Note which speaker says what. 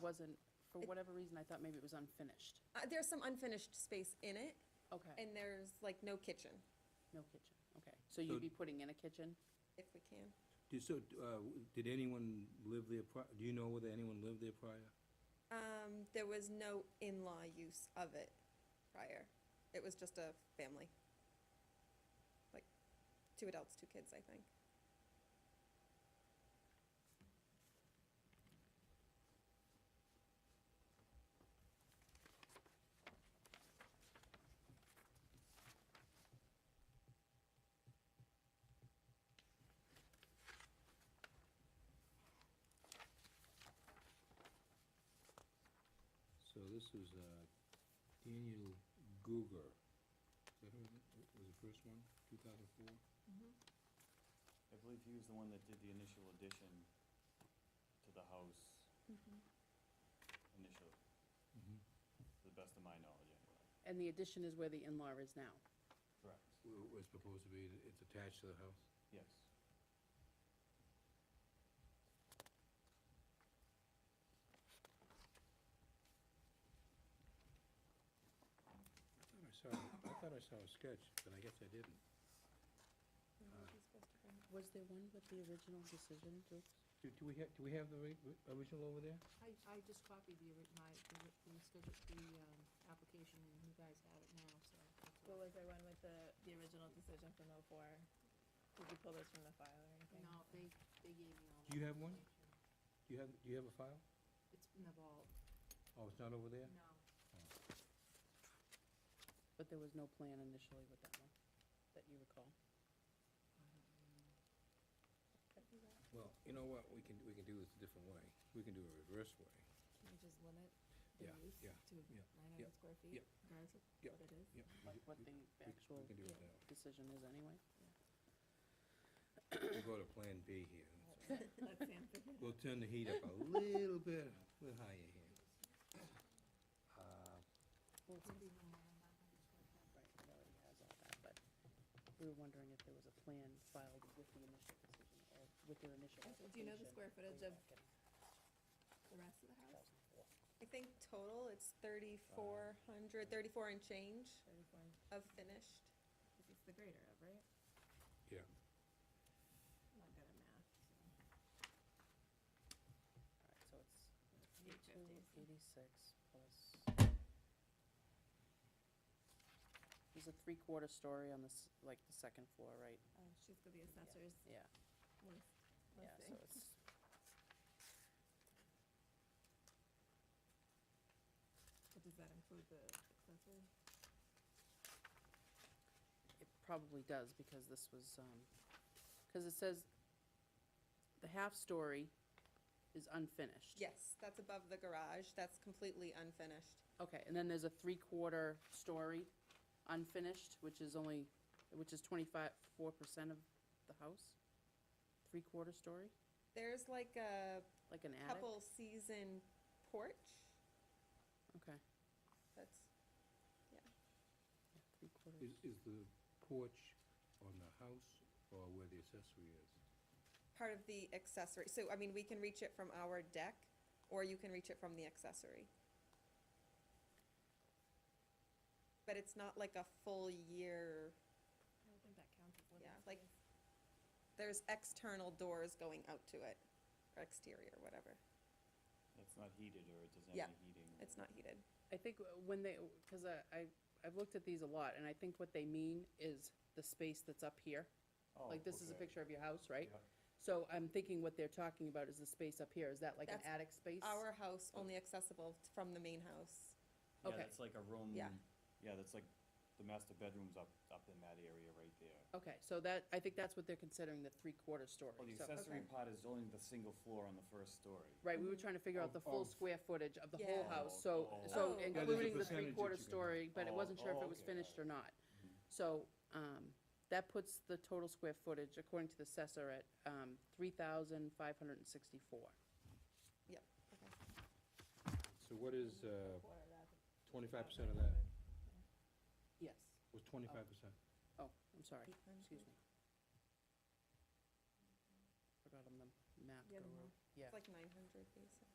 Speaker 1: wasn't, for whatever reason, I thought maybe it was unfinished.
Speaker 2: Uh, there's some unfinished space in it,
Speaker 1: Okay,
Speaker 2: and there's like no kitchen,
Speaker 1: no kitchen, okay. So
Speaker 3: So-
Speaker 1: you'd be putting in a kitchen?
Speaker 2: if we can.
Speaker 3: Do- So, uh, w- did anyone live there pri, do you know whether anyone lived there prior?
Speaker 2: Um, there was no in-law use of it prior. It was just a family. Like, two adults, two kids, I think.
Speaker 3: So this was, uh, Daniel Guger. Is that who, it was the first one, two thousand four?
Speaker 4: I believe he was the one that did the initial addition to the house initially,
Speaker 3: Mm-hmm.
Speaker 4: to the best of my knowledge anyway.
Speaker 1: And the addition is where the in-law is now?
Speaker 4: Correct.
Speaker 3: Was supposed to be, it's attached to the house?
Speaker 4: Yes.
Speaker 3: I thought I saw, I thought I saw a sketch, but I guess I didn't.
Speaker 1: Was there one with the original decision, Dukes?
Speaker 3: Do, do we have, do we have the ri- ri- original over there?
Speaker 5: I, I just copied the, ori- my, the, ri- the schedule, the, um, application, and you guys have it now, so. that's
Speaker 6: What
Speaker 5: all.
Speaker 6: was the one with the, the original decision from oh four? Did you pull this from the file or anything?
Speaker 5: No, they, they gave me all.
Speaker 3: Do you have
Speaker 5: that
Speaker 3: one?
Speaker 5: information.
Speaker 3: Do you have, do you have a file?
Speaker 5: It's in the vault.
Speaker 3: Oh, it's not over there?
Speaker 5: No.
Speaker 1: But there was no plan initially with that one, that you recall?
Speaker 3: Well, you know what, we can, we can do this a different way. We can do a reverse way.
Speaker 6: Can we just limit
Speaker 3: the Yeah, use yeah,
Speaker 6: to
Speaker 3: yeah,
Speaker 6: nine
Speaker 3: yeah,
Speaker 6: square
Speaker 3: feet, yeah.
Speaker 6: regardless of
Speaker 3: Yeah. what
Speaker 6: it is?
Speaker 3: Yep. we
Speaker 1: Like
Speaker 3: ju-
Speaker 1: what
Speaker 3: we-
Speaker 1: the
Speaker 3: we c-
Speaker 1: actual
Speaker 3: We can do it that way.
Speaker 1: decision is anyway?
Speaker 3: We'll go to Plan B here.
Speaker 6: Let's answer.
Speaker 3: We'll turn the heat up a little bit, a little higher here. Uh,
Speaker 1: Well, it's-
Speaker 5: Maybe no more than that, I just wrote
Speaker 1: Right, it
Speaker 5: that.
Speaker 1: already has all that, but we were wondering if there was a plan filed with the initial decision or with your initial
Speaker 6: Okay,
Speaker 1: application.
Speaker 6: do you know the square footage
Speaker 1: way
Speaker 6: of-
Speaker 1: back in
Speaker 6: The rest of the house,
Speaker 1: 2004.
Speaker 2: I think total, it's thirty-four hundred, thirty-four and change
Speaker 6: thirty-four,
Speaker 2: of finished.
Speaker 6: this is the greater of, right?
Speaker 3: Yeah.
Speaker 6: I'm not good at math, so.
Speaker 1: All right, so it's
Speaker 6: Eight fifty,
Speaker 1: 286
Speaker 6: so-
Speaker 1: plus. There's a three-quarter story on this, like, the second floor, right?
Speaker 6: Oh, she's got the assessor's
Speaker 1: Yeah,
Speaker 6: list.
Speaker 1: yeah, so
Speaker 6: listing.
Speaker 1: it's,
Speaker 6: But does that include the accessory?
Speaker 1: it probably does, because this was, um, because it says the half-story is unfinished.
Speaker 2: Yes, that's above the garage, that's completely unfinished.
Speaker 1: Okay, and then there's a three-quarter story unfinished, which is only, which is twenty-five, four percent of the house? Three-quarter story,
Speaker 2: There's like a
Speaker 1: like an attic?
Speaker 2: couple season porch
Speaker 1: Okay,
Speaker 2: that's,
Speaker 1: yeah, three-quarter.
Speaker 3: Is, is the porch on the house or where the accessory is?
Speaker 2: part of the accessory, so, I mean, we can reach it from our deck, or you can reach it from the accessory. But it's not like a full year,
Speaker 6: I don't think that counts as living
Speaker 2: Yeah,
Speaker 6: space.
Speaker 2: like- there's external doors going out to it, or exterior, whatever,
Speaker 4: That's not heated or it doesn't
Speaker 2: Yeah,
Speaker 4: have any heating.
Speaker 2: it's not heated.
Speaker 1: I think w- when they, because I, I- I've looked at these a lot, and I think what they mean is the space that's up here.
Speaker 4: Oh,
Speaker 1: Like, this is a
Speaker 4: okay.
Speaker 1: picture of your house, right?
Speaker 4: Yeah.
Speaker 1: So I'm thinking what they're talking about is the space up here, is that like an
Speaker 2: That's
Speaker 1: attic space?
Speaker 2: Our house only accessible t- from the main house.
Speaker 1: Okay.
Speaker 4: Yeah, that's like a room.
Speaker 2: Yeah.
Speaker 4: Yeah, that's like the master bedroom's up, up in that area right there.
Speaker 1: Okay, so that, I think that's what they're considering the three-quarter story.
Speaker 4: Well, Oh, the
Speaker 1: So-
Speaker 4: accessory part is only the single floor on the first story.
Speaker 1: Right, we were trying to figure out the
Speaker 3: Of-
Speaker 1: full
Speaker 3: of-
Speaker 1: square footage of the whole
Speaker 2: Yeah.
Speaker 1: house, so,
Speaker 4: Oh,
Speaker 1: so
Speaker 2: oh.
Speaker 1: including the
Speaker 2: Yeah, there's a
Speaker 3: percentage that you
Speaker 1: three-quarter
Speaker 3: can-
Speaker 1: story, but it
Speaker 4: Oh,
Speaker 1: wasn't sure if
Speaker 4: oh,
Speaker 1: it was
Speaker 4: okay,
Speaker 1: finished or not.
Speaker 4: Mhm.
Speaker 1: So, um, that puts the total square footage, according to the assessor, at, um, three thousand five hundred and sixty-four.
Speaker 3: So what is, uh,
Speaker 6: Quarter of that.
Speaker 3: twenty-five percent of that?
Speaker 1: Yes.
Speaker 3: Was twenty-five percent?
Speaker 1: Oh, I'm sorry,
Speaker 2: Mm-hmm.
Speaker 1: excuse me. Forgot on the map.
Speaker 6: Yeah, the
Speaker 1: guru.
Speaker 6: map.
Speaker 1: Yeah,
Speaker 2: It's like nine hundred, basically.